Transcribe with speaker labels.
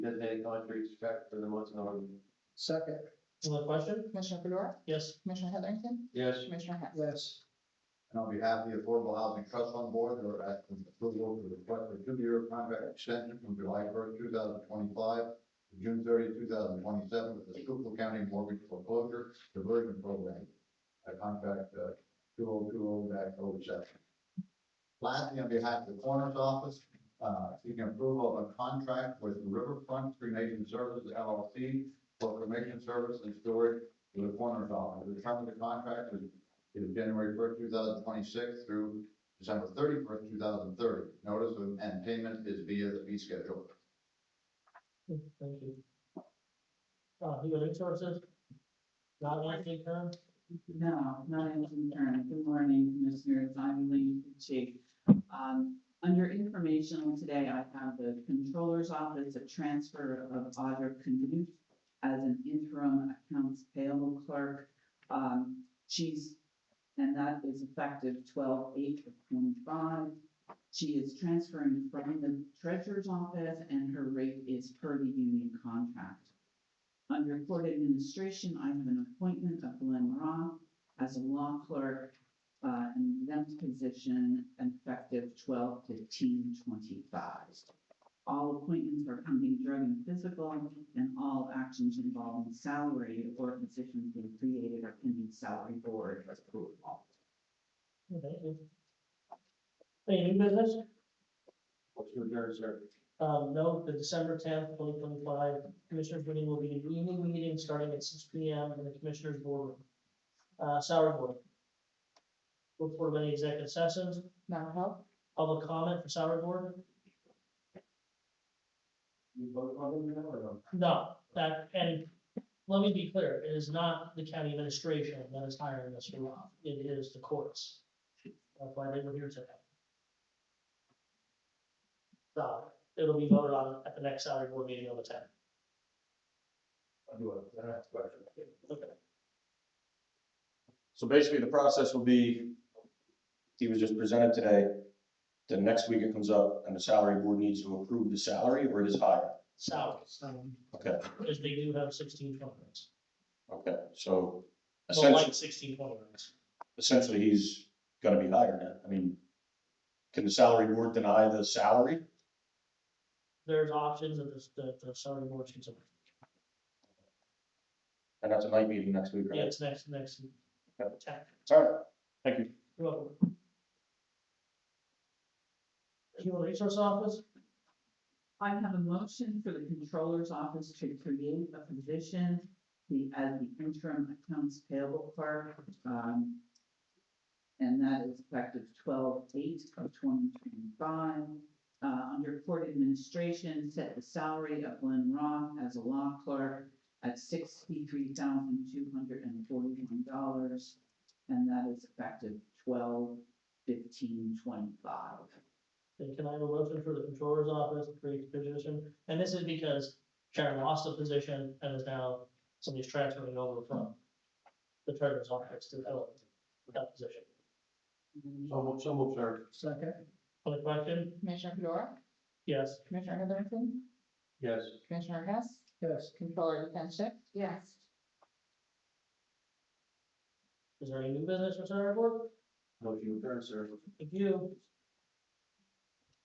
Speaker 1: designated contractor check for the month known.
Speaker 2: Second,
Speaker 3: On the question?
Speaker 4: Commissioner Fedora,
Speaker 3: Yes.
Speaker 4: Commissioner Heatherington,
Speaker 1: Yes,
Speaker 4: Commissioner Hess.
Speaker 2: yes.
Speaker 5: And on behalf of the Affordable Housing Trust Fund Board, they're asking approval for the request for two-year contract extension from July first, two thousand twenty-five to June 30, 2027, with the Schuylkill County Mortgage Foreclosure Diversion Program, a contract two oh two oh dash oh seven. Lastly, on behalf of the Coroner's Office, uh, seeking approval of a contract with Riverfront Cremation Services LLC for cremation service and storage to the Coroner's Office. The term of the contract is is January first, two thousand twenty-six through December thirty-first, two thousand thirty. Notice of and payment is via the fee schedule.
Speaker 3: Thank you. Uh, human resources? Not likely, Karen?
Speaker 6: No, not in concern. Good morning, Commissioners. I'm Lee Chief. Um, under informational today, I have the Controller's Office, a transfer of Audra Canute as an interim accounts payable clerk. Um, she's, and that is effective twelve eight of twenty-five. She is transferring from the Treasurer's Office and her rate is per the union contract. Under court administration, I have an appointment of Glenn Roth as a law clerk, uh, an exempt position effective 12-15-25. All appointments are pending drug and physical, and all actions involving salary or positions being created are pending salary board approval.
Speaker 3: Okay. Any new business?
Speaker 1: what's your turn, sir?
Speaker 3: Um, note the December tenth, twenty twenty-five Commissioners meeting will be an evening meeting starting at six P M in the Commissioners boardroom. Uh, salary board. Report of any executive sessions,
Speaker 4: Mental health,
Speaker 3: public comment for salary board?
Speaker 1: You vote on it now or no?
Speaker 3: No, that, and let me be clear, it is not the county administration that is hiring Mr. Roth, it is the courts. That's why they were here today. So, it'll be voted on at the next salary board meeting on the tenth.
Speaker 1: I do have I have a question.
Speaker 3: Okay.
Speaker 7: So basically, the process will be, he was just presented today, then next week it comes up, and the salary board needs to approve the salary, or it is higher?
Speaker 3: salaries,
Speaker 7: Okay,
Speaker 3: because they do have sixteen twenty ranks.
Speaker 7: okay, so
Speaker 3: Well,
Speaker 7: essentially,
Speaker 3: like sixteen twenty ranks.
Speaker 7: essentially, he's gonna be higher now, I mean, can the salary board deny the salary?
Speaker 3: There's options that the, that the salary board can consider.
Speaker 7: And that's a night meeting next week,
Speaker 3: Yeah,
Speaker 7: right?
Speaker 3: it's next, next
Speaker 7: Okay.
Speaker 3: attack.
Speaker 7: All right, thank you.
Speaker 3: You're welcome. Human Resource Office,
Speaker 6: I have a motion for the Controller's Office to create a position the, as the interim accounts payable clerk. um, And that is effective twelve eight of twenty twenty-five. Uh, under court administration, set the salary of Glenn Roth as a law clerk at sixty-three thousand two hundred and forty-one dollars. And that is effective twelve fifteen twenty-five.
Speaker 3: then can I have a motion for the Controller's Office to create a position? And this is because Sharon lost a position and is now, somebody's transferring over from the treasurer's office to fill that position.
Speaker 1: So, mo- so move, sir.
Speaker 2: Second,
Speaker 3: Other question?
Speaker 4: Commissioner Fedora,
Speaker 3: Yes.
Speaker 4: Commissioner Heatherington,
Speaker 1: Yes,
Speaker 4: Commissioner Hess,
Speaker 2: yes.
Speaker 4: Controller Yekenship,
Speaker 6: Yes.
Speaker 3: Is there any new business for salary board?
Speaker 1: motion to adjourn, sir.
Speaker 3: Thank you.